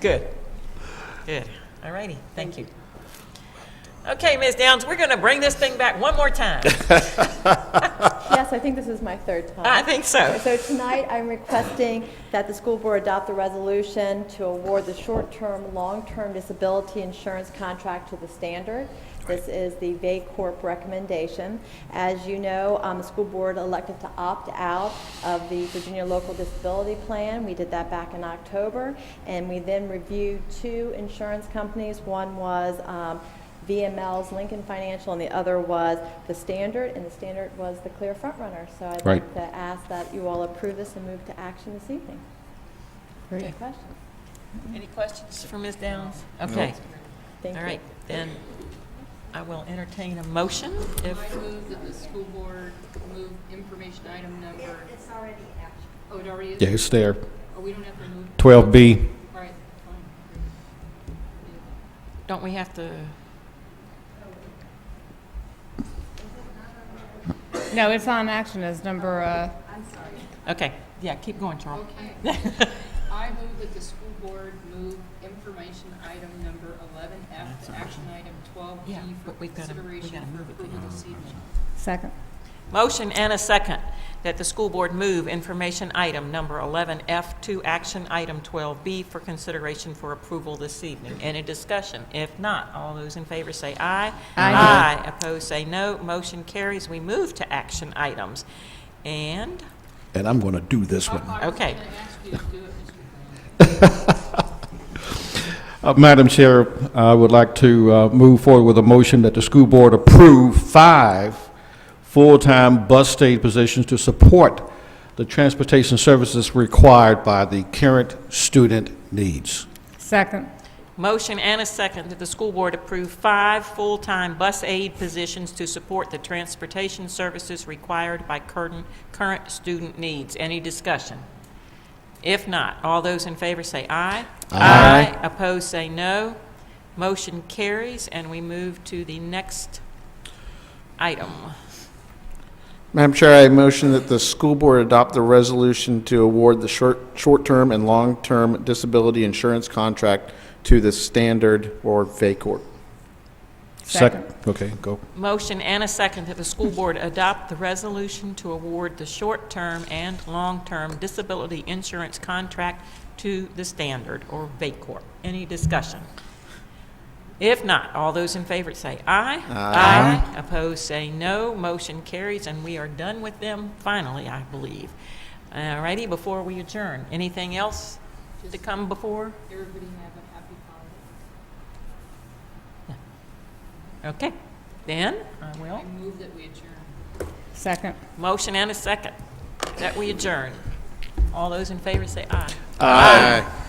Good. Good. All righty. Thank you. Okay, Ms. Downs, we're going to bring this thing back one more time. Yes, I think this is my third time. I think so. So tonight, I'm requesting that the school board adopt the resolution to award the short-term, long-term disability insurance contract to the standard. This is the VACORP recommendation. As you know, um, the school board elected to opt out of the Virginia Local Disability Plan. We did that back in October, and we then reviewed two insurance companies. One was um, VML's Lincoln Financial, and the other was the Standard, and the Standard was the clear frontrunner. So I'd like Right. to ask that you all approve this and move to action this evening. Any questions? Any questions for Ms. Downs? Okay. Thank All you. right. Then I will entertain a motion if, I move that the school board move information item number. It's already action. Oh, it already is? Yeah, it's there. Oh, we don't have to move? 12B. All right, fine. don't we have to? No, it's on action as number, uh, Okay. Yeah, keep going, Charles. Okay. I move that the school board move information item number eleven F to action item twelve E Yeah, for but we've gotta- we consideration gotta for move it to approval the- this evening. second. Motion and a second that the school board move information item number 11F to action item 12B for consideration for approval this evening. Any discussion? If not, all those in favor say aye. Aye. Aye. Opposed, say no. Motion carries. We move to action items. And, And I'm going to do this one. I was Okay. going to ask you to do it, Mr. Brown. Uh, Madam Chair, I would like to uh, move forward with a motion that the school board approve five full-time bus aid positions to support the transportation services required by the current student needs. Second. motion and a second that the school board approve five full-time bus aid positions to support the transportation services required by current, current student needs. Any discussion? If not, all those in favor say aye. Aye. Opposed, say no. Motion carries, and we move to the next item. Madam Chair, I motion that the school board adopt the resolution to award the short, short-term and long-term disability insurance contract to the Standard or VACORP. Second. Okay, go. Motion and a second that the school board adopt the resolution to award the short-term and long-term disability insurance contract to the Standard, or VACORP. Any discussion? If not, all those in favor say aye. Aye. Opposed, say no. Motion carries, and we are done with them, finally, I believe. All righty, before we adjourn, anything else to come before? Everybody have a happy holiday. Okay, then, I will. I move that we adjourn. Second. Motion and a second that we adjourn. All those in favor say aye. Aye.